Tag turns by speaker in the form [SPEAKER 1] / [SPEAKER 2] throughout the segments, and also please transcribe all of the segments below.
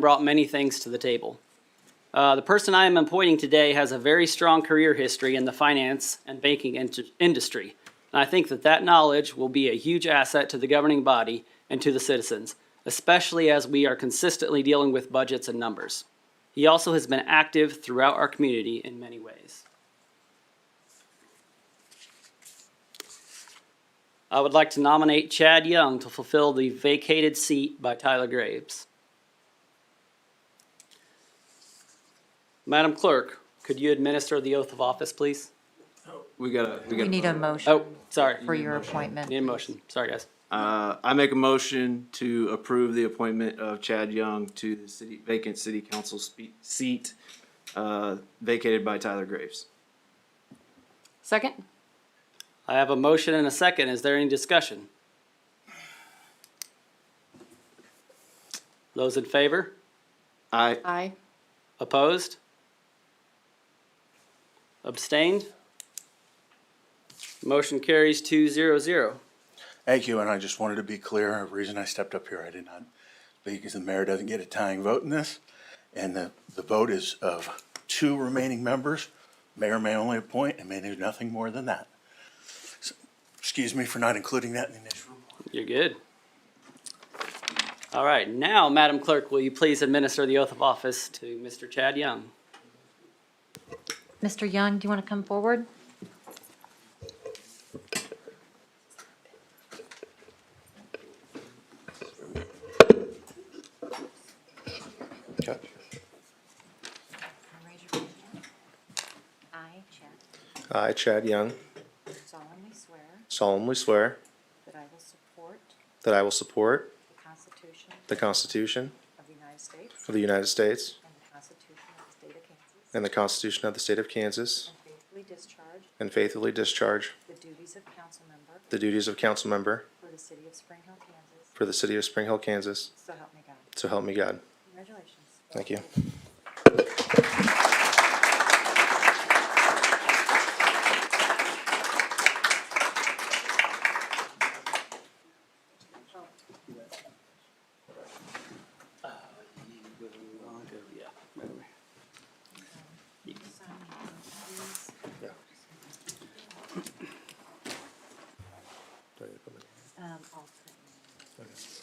[SPEAKER 1] brought many things to the table. Uh, the person I am appointing today has a very strong career history in the finance and banking in- industry. And I think that that knowledge will be a huge asset to the governing body and to the citizens, especially as we are consistently dealing with budgets and numbers. He also has been active throughout our community in many ways. I would like to nominate Chad Young to fulfill the vacated seat by Tyler Graves. Madam Clerk, could you administer the oath of office, please?
[SPEAKER 2] We gotta, we gotta.
[SPEAKER 3] We need a
[SPEAKER 2] vote.
[SPEAKER 3] motion
[SPEAKER 1] Oh, sorry.
[SPEAKER 3] for your appointment.
[SPEAKER 1] Need a motion. Sorry, guys.
[SPEAKER 2] Uh, I make a motion to approve the appointment of Chad Young to the city, vacant city council spe- seat, uh, vacated by Tyler Graves.
[SPEAKER 1] Second. I have a motion and a second. Is there any discussion? Those in favor?
[SPEAKER 2] I,
[SPEAKER 4] Aye.
[SPEAKER 1] Opposed? Abstained? Motion carries two zero zero.
[SPEAKER 5] Thank you, and I just wanted to be clear, the reason I stepped up here, I did not, because the mayor doesn't get a tying vote in this, and the, the vote is of two remaining members, mayor may only appoint, and may do nothing more than that. So, Excuse me for not including that in the initial.
[SPEAKER 1] You're good. All right, now, Madam Clerk, will you please administer the oath of office to Mr. Chad Young?
[SPEAKER 3] Mr. Young, do you want to come forward? Raise your right hand. I, Chad,
[SPEAKER 6] I, Chad Young,
[SPEAKER 3] solemnly swear
[SPEAKER 6] solemnly swear
[SPEAKER 3] that I will support
[SPEAKER 6] that I will support
[SPEAKER 3] the Constitution
[SPEAKER 6] the Constitution
[SPEAKER 3] of the United States
[SPEAKER 6] of the United States
[SPEAKER 3] and the Constitution of the State of Kansas,
[SPEAKER 6] and the Constitution of the State of Kansas,
[SPEAKER 3] and faithfully discharge
[SPEAKER 6] and faithfully discharge
[SPEAKER 3] the duties of council member
[SPEAKER 6] the duties of council member
[SPEAKER 3] for the city of Spring Hill, Kansas,
[SPEAKER 6] for the City of Spring Hill, Kansas.
[SPEAKER 3] so help me God.
[SPEAKER 6] So help me God.
[SPEAKER 3] Congratulations.
[SPEAKER 6] Thank you.
[SPEAKER 3] Um, all three.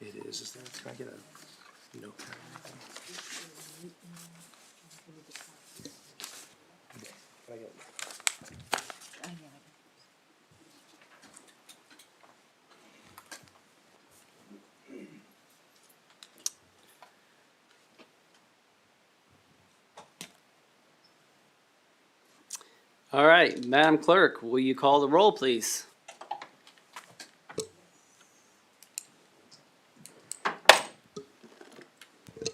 [SPEAKER 6] It is, is that, can I get a notepad? Can I get-
[SPEAKER 3] Oh, yeah, I
[SPEAKER 1] All right, Madam Clerk, will you call the roll, please?
[SPEAKER 3] do.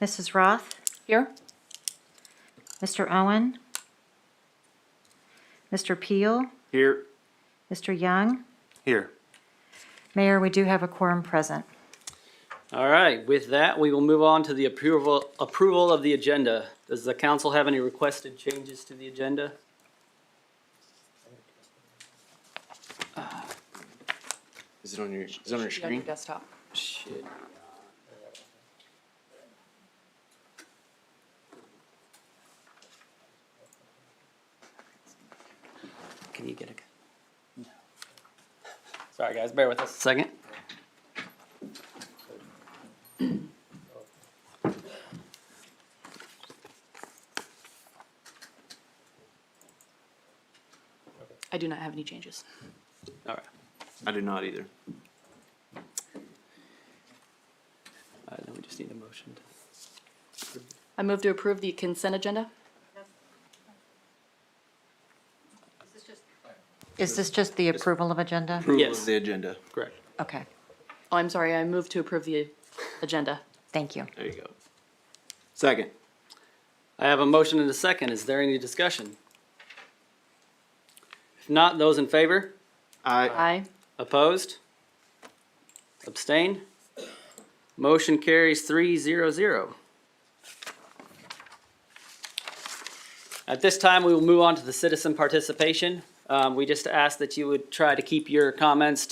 [SPEAKER 3] Mrs. Roth,
[SPEAKER 4] Here?
[SPEAKER 3] Mr. Owen, Mr. Peel,
[SPEAKER 2] here,
[SPEAKER 3] Mr. Young.
[SPEAKER 2] here.
[SPEAKER 3] Mayor, we do have a quorum present.
[SPEAKER 1] All right, with that, we will move on to the approval, approval of the agenda. Does the council have any requested changes to the agenda?
[SPEAKER 2] Is it on your, is it on your
[SPEAKER 4] Yeah, your
[SPEAKER 2] screen?
[SPEAKER 4] desktop.
[SPEAKER 1] Shit. Can you get a? Sorry, guys, bear with us a second.
[SPEAKER 4] I do not have any changes.
[SPEAKER 1] All right.
[SPEAKER 2] I do not either.
[SPEAKER 1] All right, then we just need a motion. to-
[SPEAKER 4] I move to approve the consent agenda.
[SPEAKER 3] Is this just the approval of agenda?
[SPEAKER 2] Approval
[SPEAKER 1] Yes.
[SPEAKER 2] of the agenda.
[SPEAKER 1] Correct.
[SPEAKER 3] Okay,
[SPEAKER 4] Oh, I'm sorry, I move to approve the agenda.
[SPEAKER 3] thank you.
[SPEAKER 2] There you go. Second,
[SPEAKER 1] I have a motion and a second. Is there any discussion? If not, those in favor?
[SPEAKER 2] I,
[SPEAKER 4] Aye.
[SPEAKER 1] Opposed? Abstain? Motion carries three zero zero. At this time, we will move on to the citizen participation. Um, we just ask that you would try to keep your comments